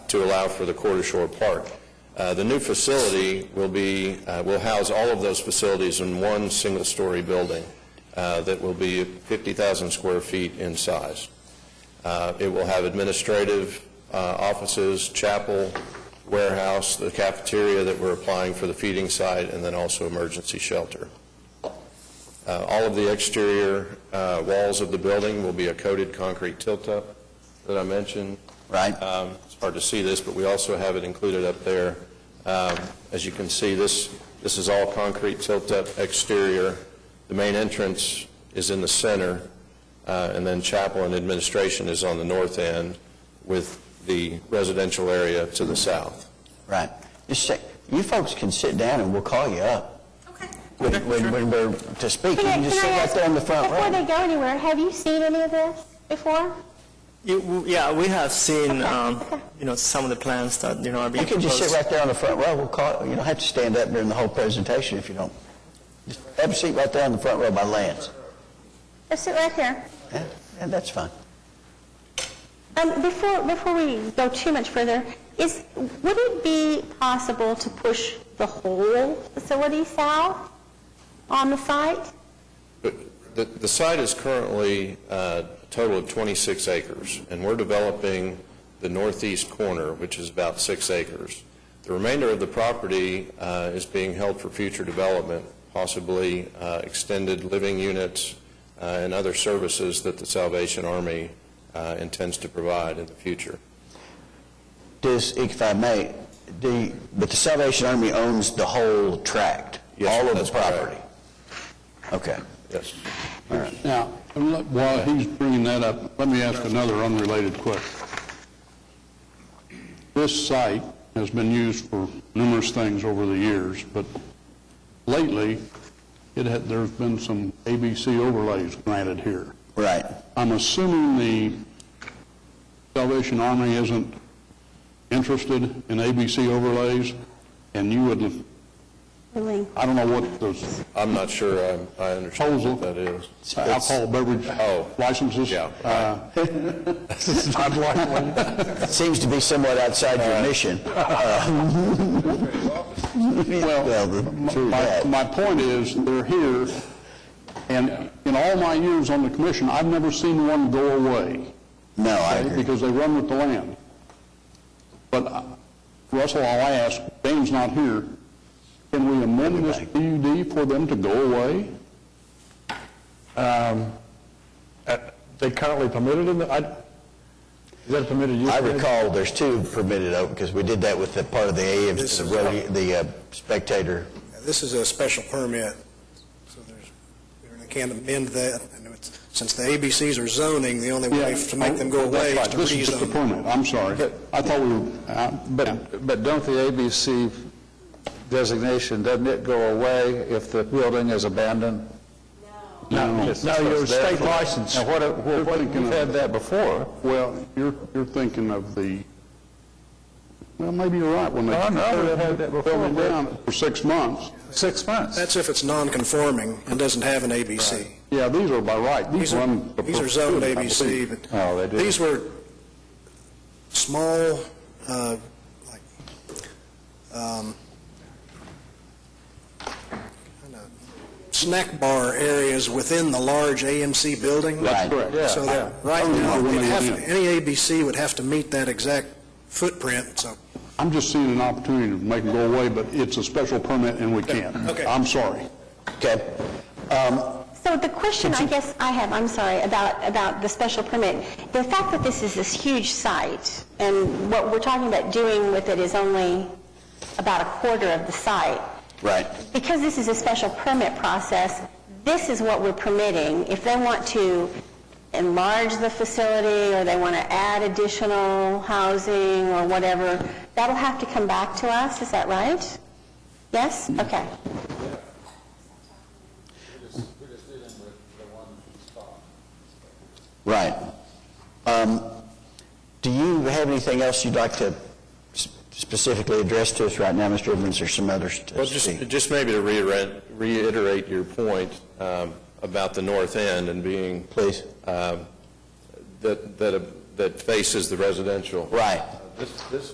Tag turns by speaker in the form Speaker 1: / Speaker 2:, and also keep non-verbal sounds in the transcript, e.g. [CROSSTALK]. Speaker 1: to allow for the Quarter Shore Park. Uh, The new facility will be, uh, will house all of those facilities in one single-story building uh, that will be 50,000 square feet in size. Uh, It will have administrative uh, offices, chapel, warehouse, the cafeteria that we're applying for the feeding site, and then also emergency shelter. Uh, All of the exterior uh, walls of the building will be a coated concrete tilt-up that I mentioned.
Speaker 2: Right.
Speaker 1: Um, It's hard to see this, but we also have it included up there. Um, As you can see, this, this is all concrete tilt-up exterior. The main entrance is in the center, uh, and then chapel and administration is on the north end with the residential area to the south.
Speaker 2: Right. Just say, you folks can sit down and we'll call you up.
Speaker 3: Okay.
Speaker 2: When, when when we're to speak, you
Speaker 4: Can I-
Speaker 2: can just
Speaker 4: can
Speaker 2: sit
Speaker 4: I
Speaker 2: right
Speaker 4: ask,
Speaker 2: there in the front
Speaker 4: Before
Speaker 2: row.
Speaker 4: they go anywhere, have you seen any of this before?
Speaker 5: You- Yeah, we have seen,
Speaker 4: Okay,
Speaker 5: um,
Speaker 4: okay.
Speaker 5: you know, some of the plans that, you know, are
Speaker 2: You
Speaker 5: being
Speaker 2: can
Speaker 5: proposed.
Speaker 2: just sit right there on the front row, we'll call, you don't have to stand up during the whole presentation if you don't. Just Have a seat right there in the front row by Lance.
Speaker 4: Just sit right here.
Speaker 2: Yeah, yeah, that's fine.
Speaker 4: Um, Before, before we go too much further, is, would it be possible to push the whole facility south on the site?
Speaker 1: But The the site is currently uh, a total of 26 acres, and we're developing the northeast corner, which is about six acres. The remainder of the property uh, is being held for future development, possibly uh, extended living units uh, and other services that the Salvation Army uh, intends to provide in the future.
Speaker 2: Does, if I may, the, but the Salvation Army owns the whole tract?
Speaker 1: Yes,
Speaker 2: All of
Speaker 1: that's
Speaker 2: the
Speaker 1: correct.
Speaker 2: property? Okay.
Speaker 1: Yes.
Speaker 6: Now, let- while he's bringing that up, let me ask another unrelated question. This site has been used for numerous things over the years, but lately, it had, there's been some ABC overlays granted here.
Speaker 2: Right.
Speaker 6: I'm assuming the Salvation Army isn't interested in ABC overlays, and you would,
Speaker 4: Really?
Speaker 6: I don't know what those
Speaker 1: I'm not sure I- I understand what that is.
Speaker 6: alcohol beverage
Speaker 1: Oh.
Speaker 6: licenses.
Speaker 1: Yeah.
Speaker 6: uh, I'd like one.
Speaker 2: [LAUGHS] It seems to be somewhat outside
Speaker 1: Uh,
Speaker 2: your mission.
Speaker 1: [LAUGHS]
Speaker 2: Well, the- true
Speaker 6: My,
Speaker 2: that.
Speaker 6: my point is, they're here, and in all my years on the commission, I've never seen one go away.
Speaker 2: No, I
Speaker 6: okay,
Speaker 2: agree.
Speaker 6: Because they run with the land. But uh, Russell, all I ask, Dane's not here, can we amend this PUD for them to go away?
Speaker 7: They currently permitted in the, I, is that a permitted use?
Speaker 2: I recall there's two permitted open, because we did that with the part of the AM,
Speaker 8: This
Speaker 2: the
Speaker 8: is-
Speaker 2: rodeo- the uh, spectator.
Speaker 8: This is a special permit, so there's, we can't amend that. And it's- Since the ABCs are zoning, the only way to make them go away is
Speaker 6: That's
Speaker 8: to
Speaker 6: Oh, right, This is just a
Speaker 8: rezone.
Speaker 6: permit, I'm sorry. I thought we were, uh, yeah.
Speaker 7: But, but don't the ABC designation, doesn't it go away if the building is abandoned?
Speaker 6: No.
Speaker 7: No, your state license. Now, what,
Speaker 6: You're
Speaker 7: what,
Speaker 6: thinking
Speaker 7: you've
Speaker 6: of-
Speaker 7: had that before.
Speaker 6: Well, you're, you're thinking of the, well, maybe you're right when they.
Speaker 7: No, no, they've had that before.
Speaker 6: Held it down for six months.
Speaker 7: Six months.
Speaker 8: That's if it's non-conforming and doesn't have an ABC.
Speaker 6: Yeah, these are by right.
Speaker 8: These are,
Speaker 6: run for
Speaker 8: these are zoned
Speaker 6: perpetuity, I
Speaker 8: ABC,
Speaker 6: believe.
Speaker 8: but
Speaker 7: Oh, they do.
Speaker 8: these were small, uh, like, um, kinda snack bar areas within the large AMC building.
Speaker 6: That's correct.
Speaker 8: So that, right now, it'd have- any ABC would have to meet that exact footprint, so.
Speaker 6: I'm just seeing an opportunity to make them go away, but it's a special permit and we can't.
Speaker 8: Okay.
Speaker 6: I'm sorry.
Speaker 2: Okay. Um,
Speaker 4: So the question I guess I have, I'm sorry, about, about the special permit, the fact that this is this huge site, and what we're talking about doing with it is only about a quarter of the site.
Speaker 2: Right.
Speaker 4: Because this is a special permit process, this is what we're permitting. If they want to enlarge the facility, or they want to add additional housing, or whatever, that'll have to come back to us, is that right? Yes? Okay.
Speaker 2: Right. Um, Do you have anything else you'd like to s- specifically address to us right now, Mr. Evans, or some others to
Speaker 1: Well, just,
Speaker 2: speak?
Speaker 1: just maybe to reiterate, reiterate your point um, about the north end and being.
Speaker 2: Please.
Speaker 1: um, That, that, that faces the residential.
Speaker 2: Right.
Speaker 1: This, this